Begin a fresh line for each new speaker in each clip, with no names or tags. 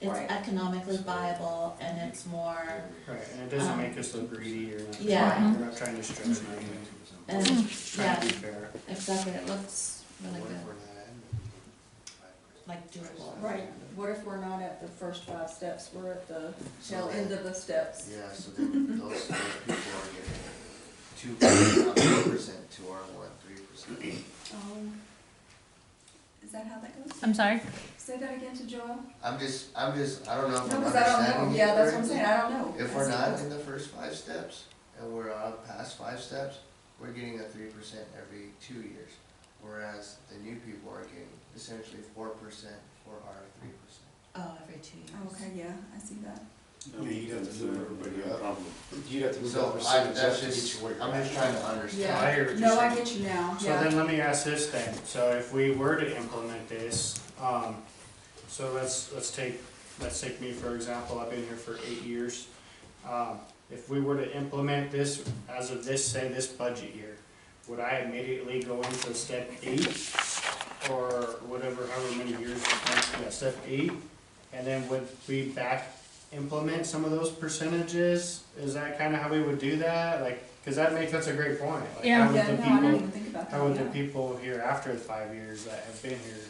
it's
Right.
economically viable and it's more,
Right, and it doesn't
Um,
make us look greedy or nothing.
yeah.
We're
Mm-hmm.
not trying to stretch anything,
and,
Mm.
trying
yeah,
to be fair.
exactly, it looks really
What if
good,
we're not?
like doable.
Right, what if we're not at the first five steps, we're at the shell end of the steps?
Yeah, so then those, those people are getting two percent, two percent to our one, three percent.
Um, Is that how that goes?
I'm sorry?
Say that again to Joel?
I'm just, I'm just, I don't know if
No,
I'm
because I don't
understanding
know,
you
yeah, that's what I'm
correctly.
saying, I don't know.
If we're not in the first five steps, and we're on past five steps, we're getting a three percent every two years. Whereas the new people are getting essentially four percent for our three percent.
Oh, every two years.
Okay, yeah, I see that.
Yeah, you'd have to move everybody up. You'd have to move that
So I,
percentage up
that's
to get
just,
you where you're
I'm just
at.
trying to understand.
I hear what you're
No, I
saying.
get you now,
So
yeah.
then let me ask this then, so if we were to implement this, um, so let's, let's take, let's take me for example, I've been here for eight years. Um, if we were to implement this as of this, say, this budget year, would I immediately go into step eight? Or whatever, however many years, yeah, step eight, and then would we back implement some of those percentages? Is that kinda how we would do that, like, cause that makes, that's a great point, like,
Yeah.
how would
Yeah,
the
no,
people?
I didn't even think about that.
How would the
yeah.
people here after the five years that have been here,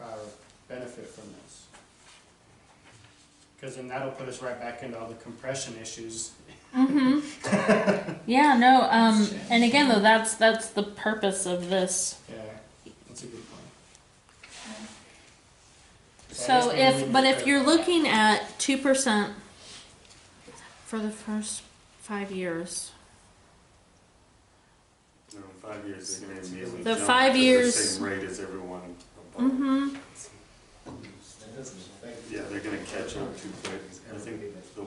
uh, benefit from this? Cause then that'll put us right back into all the compression issues.
Mm-hmm. yeah, no, um, and again, though, that's, that's the purpose of this.
Yeah, that's a good point. I
So
guess we
if,
need
but
to
if you're looking at two percent for the first five years,
No, five years, they're gonna immediately
The
jump
five
to
years-
The same rate as everyone above.
mm-hmm,
Yeah, they're gonna catch up too quick. I think the,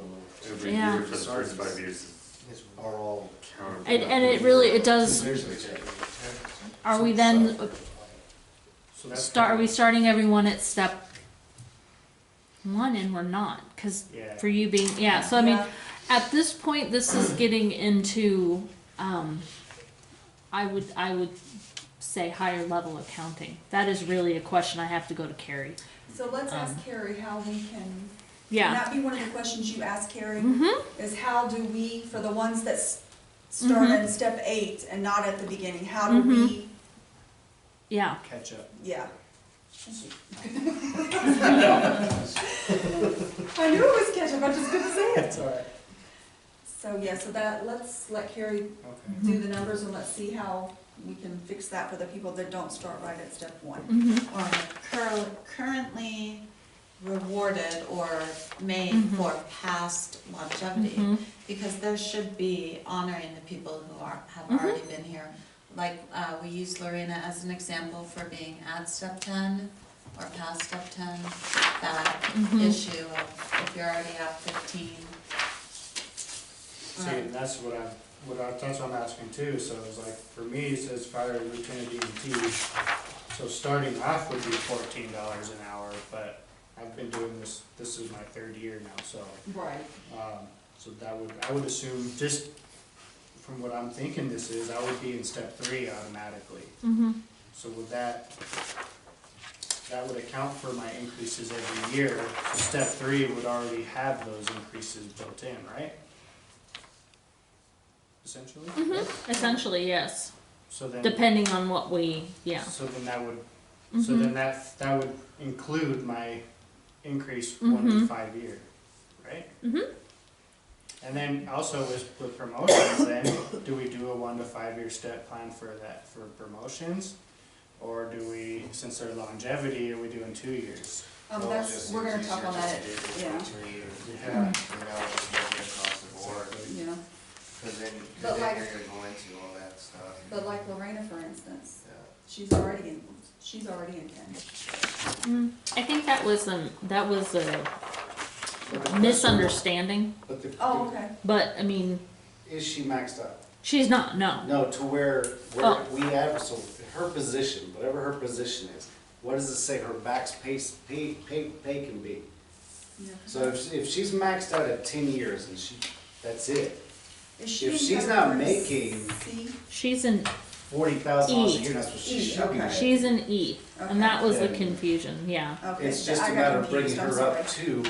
every
Yeah.
year for the first five years is
Because we're all-
are all counterproductive.
and, and it really, it does,
There's a check.
are we then,
So that's
start, are
kinda-
we starting everyone at step one and we're not, cause
Yeah,
for you being, yeah, so I mean,
Yeah.
at this point, this is getting into, um, I would, I would say higher level accounting. That is really a question I have to go to Carrie.
So let's
Um,
ask Carrie how we can, can
Yeah.
that be one of the questions you ask Carrie?
Mm-hmm.
Is how do we, for the ones that s- start
Mhm.
at step eight and not at the beginning, how
Mm-hmm.
do we,
Yeah.
catch up.
yeah. I knew it was ketchup, I just couldn't say it.
That's alright.
So, yeah, so that, let's let Carrie
Okay.
do the numbers and let's see how we can fix that for the people that don't start right at step one.
Mm-hmm.
Or cur- currently rewarded or made
Mhm.
Mm-hmm.
for past longevity.
Mm-hmm.
because there should be honoring the people who are, have
Mhm.
already been here. Like, uh, we use Lorena as an example for being at step ten or past step ten, that
Mhm.
issue of if you're already at fifteen.
See, and that's what I'm, what I, that's what I'm asking too, so it's like, for me, it says fire lieutenant DMT. So starting off would be fourteen dollars an hour, but I've been doing this, this is my third year now, so.
Right.
Um, so that would, I would assume, just from what I'm thinking this is, I would be in step three automatically.
Mm-hmm.
So would that, that would account for my increases every year. So Step three would already have those increases built in, right? Essentially?
Essentially, yes.
So then.
Depending on what we, yeah.
So then that would, so
Mm-hmm.
then that, that would include my increase one to
Mhm.
five year, right?
Mhm.
And then also with, with promotions then, do we do a one to five year step plan for that, for promotions? Or do we, since they're longevity, are we doing two years?
Um,
Well,
that's,
just
we're gonna
it's
talk
easier
on
just
that,
to do it
yeah.
for Two years,
Yeah.
you know, it's maybe across the board,
yeah.
because then,
But
because then
like-
you're gonna go into all that stuff.
But like Lorena, for instance,
Yeah.
she's already in, she's already in ten.
Mm. I think that was um that was a misunderstanding,
But the,
Oh, okay.
but I mean,
is she maxed out?
she's not. No.
No, to where, where
Oh.
we have, so her position, whatever her position is, what does it say her max pay, pay, pay, pay can be?
Yeah.
So if, if she's maxed out at ten years and she, that's it,
Is
if
in
she's
category
not making-
C?
She's an
forty thousand dollars a
E.
year, that's what she
E,
should be.
okay.
making.
she's an E,
Okay.
and that was the
Yeah.
confusion. Yeah.
Okay,
It's
so
just
I
a
got
matter of bringing
confused, I'm
her up
sorry.
to